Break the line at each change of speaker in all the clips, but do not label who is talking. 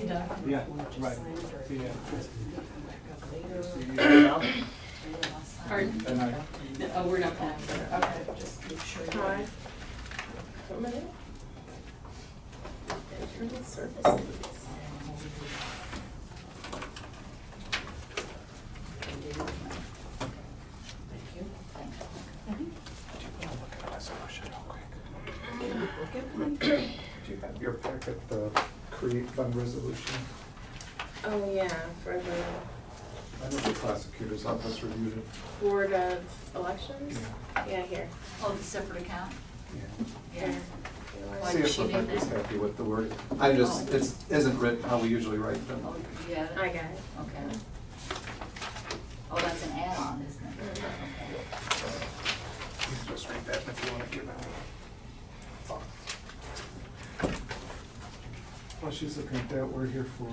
Yeah,
Or just
right.
sign it or come
Yeah.
back up later.
So you get it out,
And then I'll sign
Pardon?
and I,
it.
No, Oh, we're not paying for it, okay.
Okay, just make sure. you-
Hi.
Veteran Services.
Thank you.
do you have your packet, the create fund resolution?
Oh, yeah, for the
I know the prosecutor's office reviewed it.
Board of Elections? Yeah, here.
Oh, the separate account?
Yeah.
Yeah. Why
See
does
if
she need
Rebecca's
that?
happy with the word. I just, it isn't written how we usually write them.
Oh, you got
I
it?
got it.
Okay. Oh, that's an add-on, isn't it? Okay.
Just read that if you want to give it. While she's looking at that, we're here for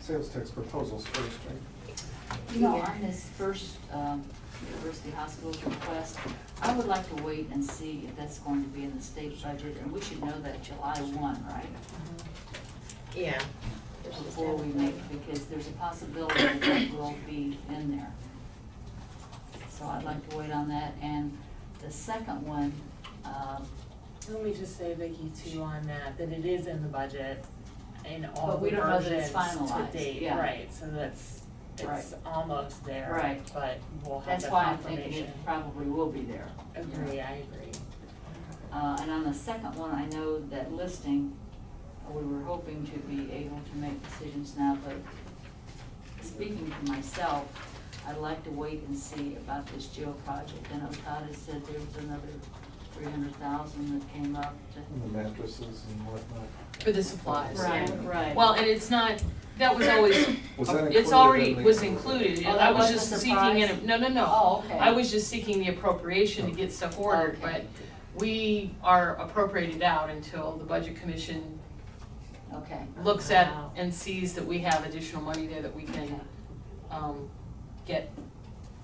sales tax proposals first, right?
You know, on this first um, University Hospital's request, I would like to wait and see if that's going to be in the state budget, and we should know that July one, right?
Yeah.
Before we make, because there's a possibility that that will be in there. So I'd like to wait on that, and the second one, um,
Let me just say, Vicky, too, on that, that it is in the budget in all
But we
the
don't know that it's
versions to
finalized,
date,
yeah.
right, so that's, it's
Right.
almost there,
Right.
but we'll have
that's
the
why I'm thinking it
confirmation.
probably will be there.
Agree, I agree.
Uh, and on the second one, I know that listing, we were hoping to be able to make decisions now, but speaking for myself, I'd like to wait and see about this jail project. And Otada said there was another three hundred thousand that came up
And
to.
the mattresses and whatnot.
For the supplies.
Right, right.
Well, and it's not, that was always,
Was that
it's
included
already,
in the-
was included,
Oh,
I
that
was
wasn't
just
a
seeking,
surprise?
an- no, no, no.
Oh, okay.
I was just seeking the appropriation to get stuff ordered, but
Okay.
we are appropriated out until the budget commission
Okay,
looks at
Wow.
and sees that we have additional money there that we can, um, get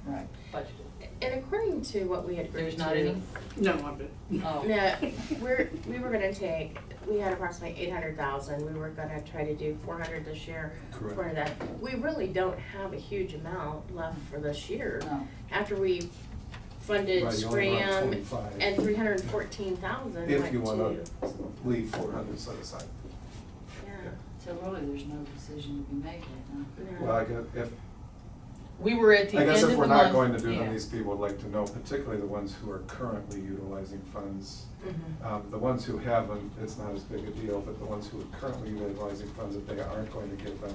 right.
budgeted.
And according to what we had agreed to.
There's not any?
No, I'm good.
Oh,
No, we're, we were gonna take, we had approximately eight hundred thousand, we were gonna try to do four hundred this year, four
Correct.
hundred that. We really don't have a huge amount left for this year,
No,
after we funded
Right, you only brought
Scram
25.
and three hundred and fourteen thousand went to.
If you wanna leave four hundred set aside.
Yeah.
so really, there's no decision to be made right now.
No.
Well, I guess if,
we were at the
I
end of
guess
the
if
month.
we're not going to do
yeah.
them, these people would like to know, particularly the ones who are currently utilizing funds. Um, the ones who haven't, it's not as big a deal, but the ones who are currently utilizing funds, if they aren't going to give them,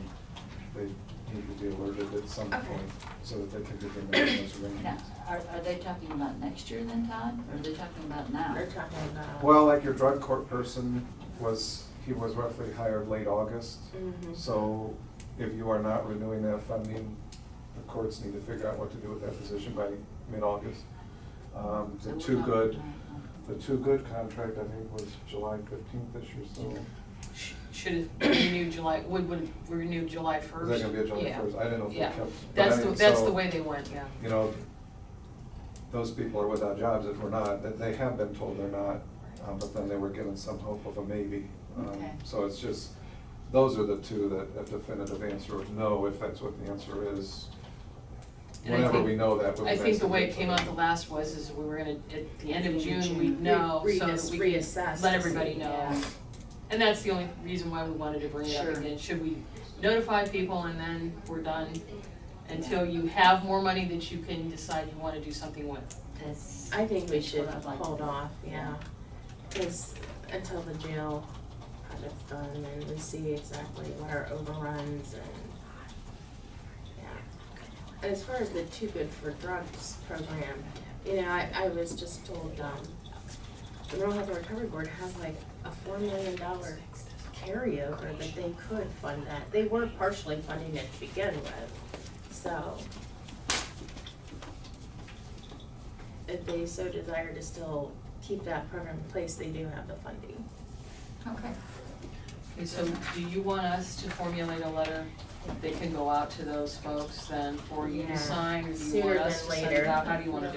they need to be alerted at some
Okay.
point so that they can give their those
Now,
arrangements.
are, are they talking about next year then, Todd? Or are they talking about now?
They're talking about.
Well, like your drug court person was, he was roughly hired late August.
Mm-hmm.
Mhm.
So if you are not renewing that funding, the courts need to figure out what to do with that position by mid-August. Um,
So
The
we're uh,
two
not-
good, the two good contract, I think, was July fifteenth this year, so
Sh- Should have renewed July, would, would have renewed July first.
is that gonna be a July
Yeah.
first? I didn't know if they
Yeah.
kept. but
That's
I
the,
mean,
that's
so,
the way they went, yeah.
You know, those people are without jobs if we're not, that they have been told they're not, uh, but then they were given some hope of a maybe. Um,
Okay.
So it's just, those are the two that a definitive answer of no, if that's what the answer is.
And I
Whenever
think-
we know that, we'll.
I think the way it
basically-
came out the last was, is we were gonna, at the end of
Beginning of
June,
June.
we'd know,
Re-
so
re-
that we could
reassess
let
to
everybody
see,
know.
yeah.
And that's the only reason why we wanted to bring it up
Sure.
again, should we notify people and then we're done? Until you have more money that you can decide you wanna do something with.
That's.
I think we
that's
should
what I'd like to
hold
do.
off, yeah, cause until the jail project's done and we see exactly what our overruns and, yeah. And As far as the Too Good for Drugs program, you know, I, I was just told, um, the Rural Health Recovery Board has like a four million dollar carryover that they could fund that, they were partially funding it to begin with, so. if they so desire to still keep that program in place, they do have the funding.
Okay.
Okay, so do you want us to formulate a letter that can go out to those folks then for you
Yeah.
to sign? Or do you
Sooner
want us
than
to send it
later.
out? How do you wanna do